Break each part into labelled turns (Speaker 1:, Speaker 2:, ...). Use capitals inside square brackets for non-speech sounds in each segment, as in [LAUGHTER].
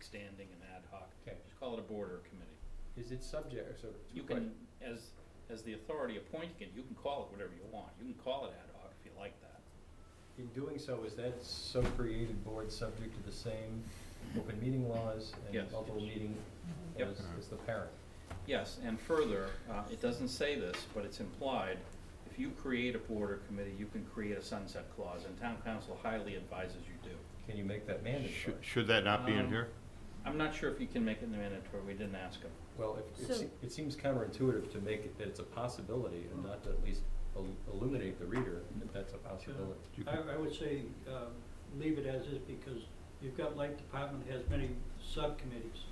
Speaker 1: standing and ad hoc.
Speaker 2: Okay.
Speaker 1: Just call it a board or a committee.
Speaker 2: Is it subject, or so, two
Speaker 1: You
Speaker 2: questions.
Speaker 1: can, as, as the authority appointing it, you can call it whatever you want. You can call it ad hoc if you like that.
Speaker 2: In doing so, is that so created board subject to the same open meeting laws
Speaker 1: Yes.
Speaker 2: and multiple meeting
Speaker 1: Yep.
Speaker 2: as, as the parent?
Speaker 1: Yes, and further, uh, it doesn't say this, but it's implied, if you create a board or committee, you can create a sunset clause, and town council highly advises you do.
Speaker 2: Can you make that mandatory?
Speaker 3: Should, should that not be in
Speaker 1: Um,
Speaker 3: here?
Speaker 1: I'm not sure if you can make it mandatory, we didn't ask them.
Speaker 2: Well, if- it,
Speaker 4: So-
Speaker 2: se- it seems counterintuitive to make it that it's a possibility and not to at least il- illuminate the reader that that's a possibility.
Speaker 3: You could-
Speaker 5: I, I would say, uh, leave it as is because you've got light department has many subcommittees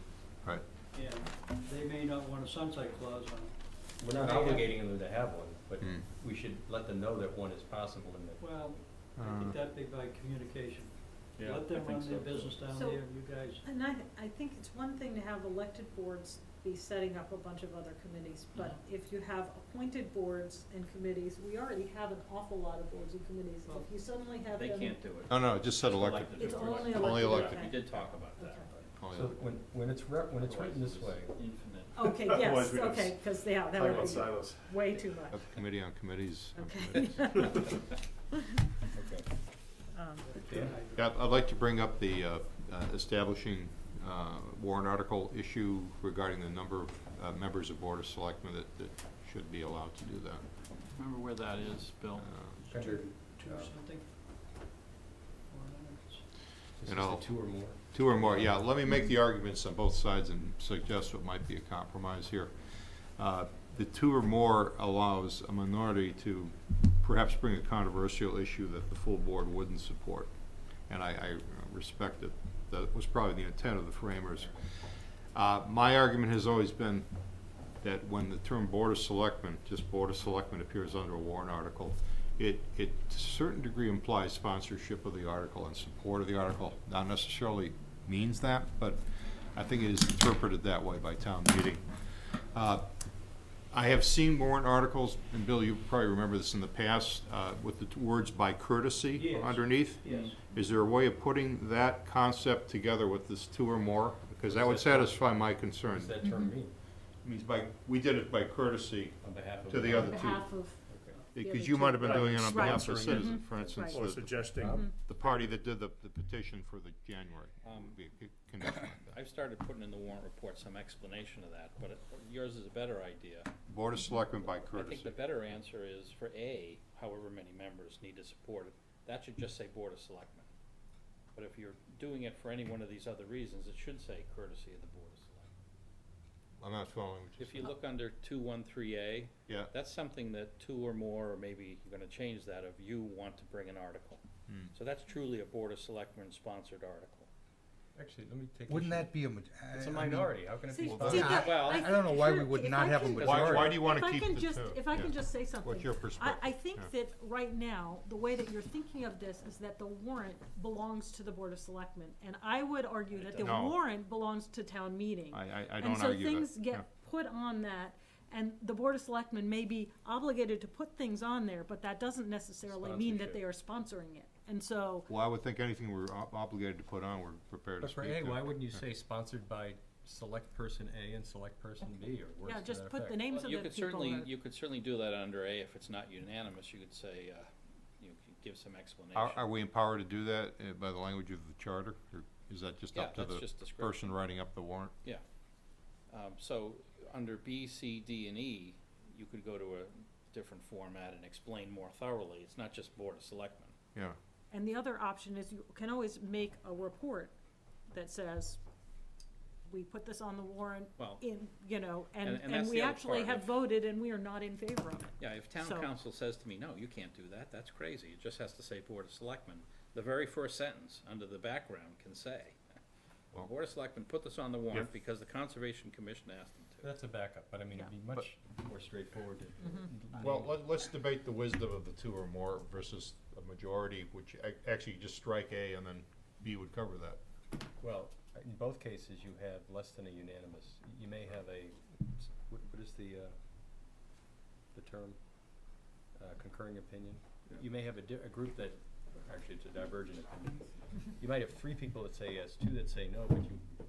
Speaker 3: Right.
Speaker 5: and they may not want a sunset clause on it.
Speaker 2: We're not
Speaker 5: They have-
Speaker 2: obligating them to have one, but
Speaker 3: Hmm.
Speaker 2: we should let them know that one is possible and that
Speaker 5: Well, I
Speaker 3: Uh.
Speaker 5: think that'd be by communication. Let them run their business down there,
Speaker 4: So-
Speaker 5: you guys,
Speaker 4: And I, I think it's one thing to have elected boards be setting up a bunch of other committees, but if you have appointed boards and committees, we already have an awful lot of boards and committees.
Speaker 5: Well,
Speaker 4: If you suddenly have
Speaker 1: They
Speaker 4: them.
Speaker 1: can't do it.
Speaker 3: No, no, it just said elected.
Speaker 4: It's only
Speaker 3: Only elected.
Speaker 4: elected,
Speaker 1: We did talk about that.
Speaker 4: Okay.
Speaker 3: Only
Speaker 2: So
Speaker 3: elected.
Speaker 2: when, when it's re- when it's written this way,
Speaker 1: Otherwise, it's Infinite.
Speaker 4: Okay,
Speaker 6: Otherwise,
Speaker 4: yes,
Speaker 6: we'd have
Speaker 4: okay, because, yeah, that
Speaker 6: Talk
Speaker 4: would
Speaker 6: about
Speaker 4: be
Speaker 6: silos.
Speaker 4: way too much. [LAUGHS]
Speaker 3: Have committee on committees. on
Speaker 4: Okay.
Speaker 3: committees.
Speaker 2: [LAUGHS]
Speaker 1: [LAUGHS]
Speaker 2: okay.
Speaker 4: Um,
Speaker 2: Yeah.
Speaker 3: Yeah, I'd like to bring up the uh, uh, establishing uh, warrant article issue regarding the number of uh, members of Board of Selectmen that, that should be allowed to do that.
Speaker 1: Remember where that is, Bill?
Speaker 3: Uh,
Speaker 2: Under-
Speaker 5: two
Speaker 2: uh,
Speaker 5: or something. Or I don't know, it's-
Speaker 2: It's just the
Speaker 3: You know.
Speaker 2: two or more.
Speaker 3: Two or more, yeah, let me make the arguments on both sides and suggest what might be a compromise here. Uh, The two or more allows a minority to perhaps bring a controversial issue that the full board wouldn't support. And I, I respect that, that was probably the intent of the framers. Uh, My argument has always been that when the term Board of Selectmen, just Board of Selectmen appears under a warrant article, it, it to a certain degree implies sponsorship of the article and support of the article. Not necessarily means that, but I think it is interpreted that way by town meeting. Uh, I have seen warrant articles, and Bill, you probably remember this in the past, uh, with the words by courtesy
Speaker 5: Yes.
Speaker 3: underneath.
Speaker 5: Yes,
Speaker 3: Is there a way of putting that concept together with this two or more? Because that would satisfy my concern.
Speaker 2: What does that term mean
Speaker 3: Means by, we did it by courtesy,
Speaker 2: on behalf of?
Speaker 3: To the
Speaker 4: On
Speaker 3: other two.
Speaker 4: behalf of,
Speaker 2: Okay.
Speaker 4: other
Speaker 3: because
Speaker 4: two.
Speaker 3: you might have been doing it on
Speaker 4: Right.
Speaker 3: behalf of
Speaker 4: Right. Mm-hmm.
Speaker 3: citizens, for instance,
Speaker 4: Right.
Speaker 6: Or
Speaker 3: the,
Speaker 6: suggesting,
Speaker 3: the party that did the, the petition for the January.
Speaker 1: Um,
Speaker 3: Be a good condition like that.
Speaker 1: I've started putting in the warrant report some explanation of that, but it- yours is a better idea.
Speaker 3: Board of Selectmen by
Speaker 1: I think the
Speaker 3: courtesy.
Speaker 1: better answer is for A, however many members need to support it, that should just say Board of Selectmen. But if you're doing it for any one of these other reasons, it should say courtesy of the Board of Selectmen.
Speaker 3: I'm not following what you're
Speaker 1: If you look under two one three A,
Speaker 3: Yeah,
Speaker 1: that's something that two or more, or maybe you're gonna change that, if you want to bring an article.
Speaker 3: Hmm.
Speaker 1: So that's truly a Board of Selectmen sponsored article.
Speaker 2: Actually, let me take.
Speaker 7: Wouldn't
Speaker 2: issue.
Speaker 7: that be a? ma- I-
Speaker 2: It's a
Speaker 7: I mean,
Speaker 2: minority, how can it
Speaker 4: see,
Speaker 2: be?
Speaker 3: Well,
Speaker 4: see,
Speaker 3: that's-
Speaker 4: that-
Speaker 1: Well,
Speaker 7: I don't know why we
Speaker 4: think
Speaker 7: would
Speaker 4: if
Speaker 7: not
Speaker 4: I
Speaker 7: have a
Speaker 4: can-
Speaker 3: why, why do you wanna
Speaker 4: If I
Speaker 3: keep the two?
Speaker 4: can just, if I can
Speaker 3: Yeah.
Speaker 4: just say something.
Speaker 3: What's your
Speaker 4: I,
Speaker 3: perspective?
Speaker 4: I think
Speaker 3: Yeah.
Speaker 4: that right now, the way that you're thinking of this is that the warrant belongs to the Board of Selectmen. And I would argue that the
Speaker 3: doesn't. No.
Speaker 4: warrant belongs to town meeting.
Speaker 3: I, I, I don't argue that.
Speaker 4: And so things
Speaker 3: Yeah.
Speaker 4: get put on that, and the Board of Selectmen may be obligated to put things on there, but that doesn't necessarily mean that they are sponsoring it. And so,
Speaker 3: Well, I would think anything we're ob- obligated to put on, we're prepared to
Speaker 2: But for
Speaker 3: speak
Speaker 2: A,
Speaker 3: to.
Speaker 2: why wouldn't you say sponsored by select person A and select person B or words
Speaker 4: yeah,
Speaker 2: to
Speaker 4: just
Speaker 2: that
Speaker 4: put the
Speaker 2: effect?
Speaker 4: names of
Speaker 1: You
Speaker 4: the
Speaker 1: could
Speaker 4: people.
Speaker 1: certainly,
Speaker 4: that-
Speaker 1: you could certainly do that under A, if it's not unanimous, you could say, uh, you could give some explanation.
Speaker 3: Are, are we empowered to do that uh, by the language of the charter, or is that just
Speaker 1: Yeah,
Speaker 3: up to
Speaker 1: that's
Speaker 3: the
Speaker 1: just descriptive.
Speaker 3: person writing up the warrant?
Speaker 1: Yeah. Um, so, under B, C, D, and E, you could go to a different format and explain more thoroughly. It's not just Board of Selectmen.
Speaker 3: Yeah,
Speaker 4: And the other option is you can always make a report that says, we put this on the warrant
Speaker 1: Well-
Speaker 4: in, you know, and,
Speaker 1: And- and
Speaker 4: and
Speaker 1: that's
Speaker 4: we
Speaker 1: the other
Speaker 4: actually
Speaker 1: part of
Speaker 4: have
Speaker 1: it.
Speaker 4: voted and we are not in favor of it.
Speaker 1: Yeah, if town
Speaker 4: So-
Speaker 1: council says to me, no, you can't do that, that's crazy, it just has to say Board of Selectmen. The very first sentence, under the background, can say, "The
Speaker 3: Well-
Speaker 1: Board of Selectmen put this on the warrant
Speaker 3: Yeah.
Speaker 1: because the Conservation Commission asked them
Speaker 2: That's a backup, but I mean, it'd be much more straightforward to.
Speaker 4: Mm-hmm.
Speaker 3: well, let, let's debate the wisdom of the two or more versus a majority, which ac- actually you just strike A and then B would cover that.
Speaker 2: Well, in both cases, you have less than a unanimous, you may have a, what, what is the, uh, the term? Uh, concurring opinion? You may have a di- a group that, actually, it's a divergent opinion. You might have three people that say yes, two that say no, but you